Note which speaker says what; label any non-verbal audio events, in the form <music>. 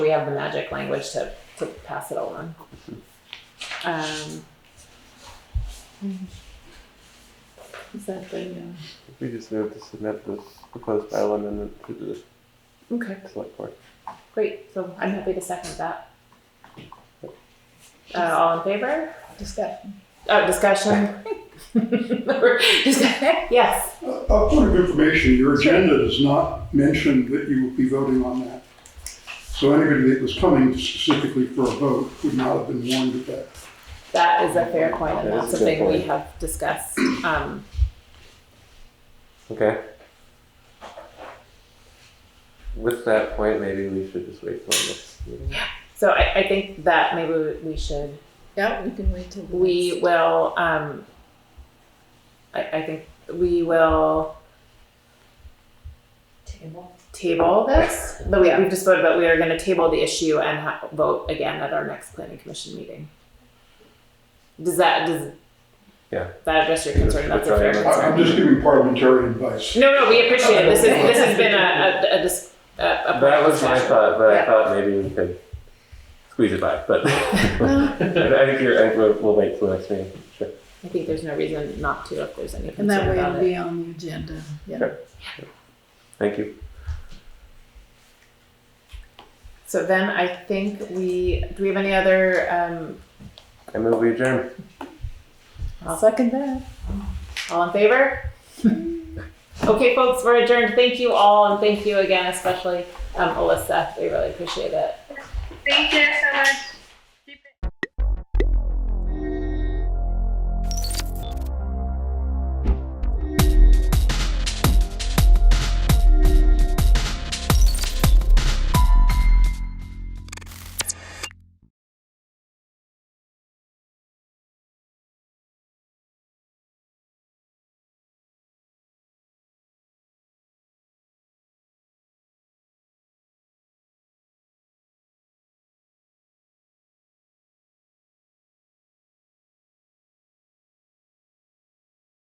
Speaker 1: we have the magic language to, to pass it along. Um. Exactly, yeah.
Speaker 2: We just need to submit this proposed bylaw amendment to the
Speaker 1: Okay,
Speaker 2: select board.
Speaker 1: great, so I'm happy to second that. Uh, all in favor?
Speaker 3: Discussion.
Speaker 1: Uh, discussion? <laughs> Just- Yes,
Speaker 4: A a point of information, your agenda does not mention that you will be voting on that. So anybody that was coming specifically for a vote would not have been warned of that.
Speaker 1: that is a fair point, and
Speaker 2: That
Speaker 1: that's
Speaker 2: is a good
Speaker 1: something we
Speaker 2: point.
Speaker 1: have discussed, um,
Speaker 2: Okay. With that point, maybe we should just wait till this meeting.
Speaker 1: so I, I think that maybe we- we should
Speaker 3: Yeah, we can wait till. the
Speaker 1: We
Speaker 3: next-
Speaker 1: will, um, I, I think we will
Speaker 5: Table.
Speaker 1: table this, but we, we've just voted, but we are gonna table the issue and ha- vote again at our next planning commission meeting. Does that, does?
Speaker 2: Yeah.
Speaker 1: That address your concern, that's a fair
Speaker 2: Try
Speaker 4: I-
Speaker 2: it.
Speaker 1: concern.
Speaker 4: I'm just giving parliamentary advice.
Speaker 1: No, no, we appreciate it, this is, this has been a, a, a dis- a, a.
Speaker 2: That was my thought, but I
Speaker 1: Yeah.
Speaker 2: thought maybe we could squeeze it by,
Speaker 1: <laughs>
Speaker 2: but I think you're, <laughs> I think we'll, we'll wait till the next meeting, sure.
Speaker 1: I think there's no reason not to if there's any
Speaker 3: And that
Speaker 1: concern
Speaker 3: way it'll
Speaker 1: about it.
Speaker 3: be on the agenda. Yeah.
Speaker 2: Sure. Thank you.
Speaker 1: So then I think we, do we have any other, um,
Speaker 2: I move we adjourn.
Speaker 3: I'll second that.
Speaker 1: All in favor? okay, folks, we're adjourned. Thank you all, and thank you again, especially um, Alyssa. We really appreciate it.
Speaker 6: Thank you so much.